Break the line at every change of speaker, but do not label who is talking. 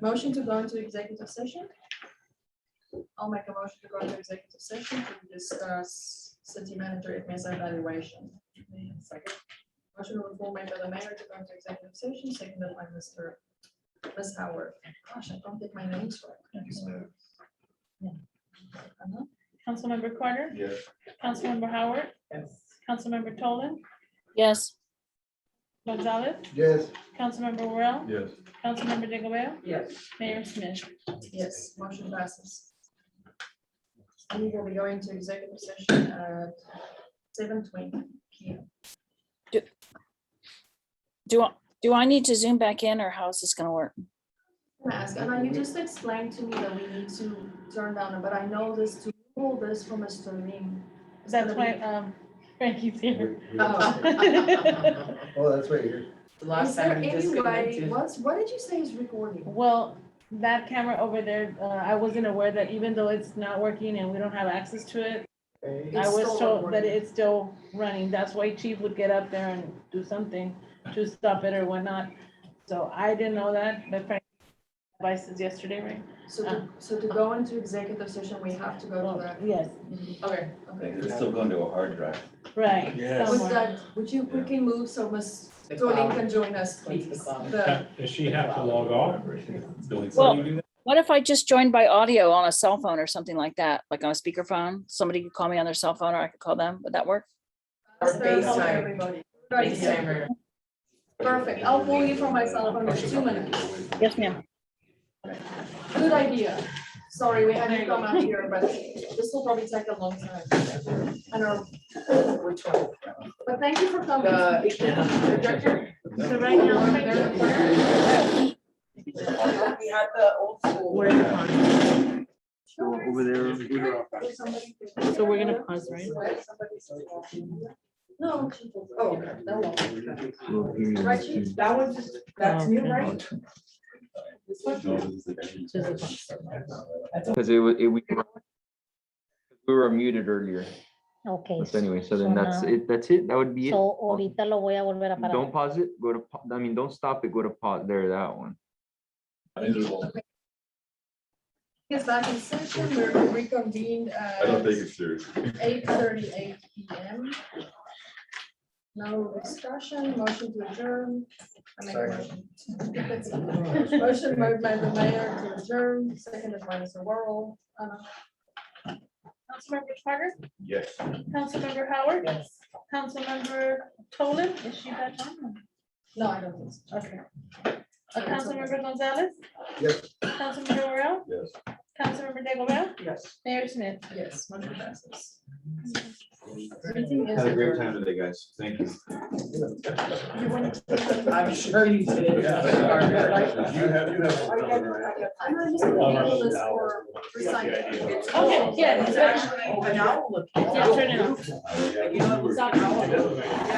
Motion to go into executive session? I'll make a motion to go into executive session to discuss city manager if miss evaluation. Second. Motion was all made by the mayor to go into executive session, seconded by Mr. Ms. Howard. Gosh, I don't think my name's right. Uh-huh.
Councilmember Carter,
Yes.
Councilmember Howard,
Yes.
Councilmember Tolan,
yes.
Gonzalez,
Yes.
Councilmember Worel,
Yes.
Councilmember Digglebale,
Yes.
Mayor Smith.
Yes, motion passes. We will be going to executive session at seven twenty P M.
Do, I do I need to zoom back in or how's this gonna work?
Can I ask, Anna, you just explained to me that we need to turn down, but I know this to pull this from Mr. Lim. it's
That's
gonna
why
be-
um, Frankie's here.
Uh-huh. Oh.
Oh, that's right here.
The last
Is there
time we
any way,
disconnected.
what's, what did you say is recording?
Well, that camera over there, uh, I wasn't aware that even though it's not working and we don't have access to it, I
It's
was
still
told that
recording.
it's still running. That's why Chief would get up there and do something to stop it or whatnot. So I didn't know that, but Frank advised us yesterday, right?
So
uh,
to, so to go into executive session, we have to go to that.
Yes,
Okay, okay.
It's still going to a hard drive.
right.
Yes.
Would
somewhere.
that, would you quickly move so Ms.
The
Dolin
cloud.
can join us,
It's
please?
the cloud.
The-
Does she have to log off? Billy,
Well-
can you do that?
What if I just joined by audio on a cell phone or something like that, like on a speakerphone? Somebody could call me on their cell phone or I could call them. Would that work?
Or
Thursday,
FaceTime.
everybody. Thursday.
FaceTimer.
Perfect, I'll pull you from my cell phone in two minutes.
Yes, ma'am.
Good idea. Sorry, we had to come out here, but this will probably take a long time. I know,
Which one?
but thank you for coming.
The projector?
So right now, Frank-
We had the old school.
Where the con-
Over there.
So we're gonna pause, right?
No. Oh, that one. Right, Chief?
That one just, that's new, right? This one?
Because it was, it, we were, we were muted earlier,
Okay,
but
so
anyway, so then that's
now-
it, that's it, that would be it.
ahorita lo voy a volver a parar.
Don't pause it, go to, pa- I mean, don't stop it, go to pause, there, that one.
Yes, back in session, we're reconvened at.
I don't think it's serious.
Eight thirty-eight PM. No discussion, motion to adjourn. I make a Motion Motion made by the mayor to adjourn, seconded by Mr. Worrell. Uh, Anna?
Councilmember Carter,
Yes.
Councilmember Howard,
Yes.
Councilmember Tolan, is she back on?
No, I don't think so. Okay.
Uh, Councilmember Gonzalez?
Yes.
Councilmember Royal,
Yes.
Councilmember Digglebell,
Yes.
Mayor Smith.
Yes, motion passes. Meeting is adjourned.
today, guys. Thank you.
You want to-
I'm sure you did.
You have, you have.
Are you guys-
I'm not just gonna handle this for recycling. It's-
Okay, yeah,
It's actually, open. I will look.
Yeah, turn it off.
You know, it's not-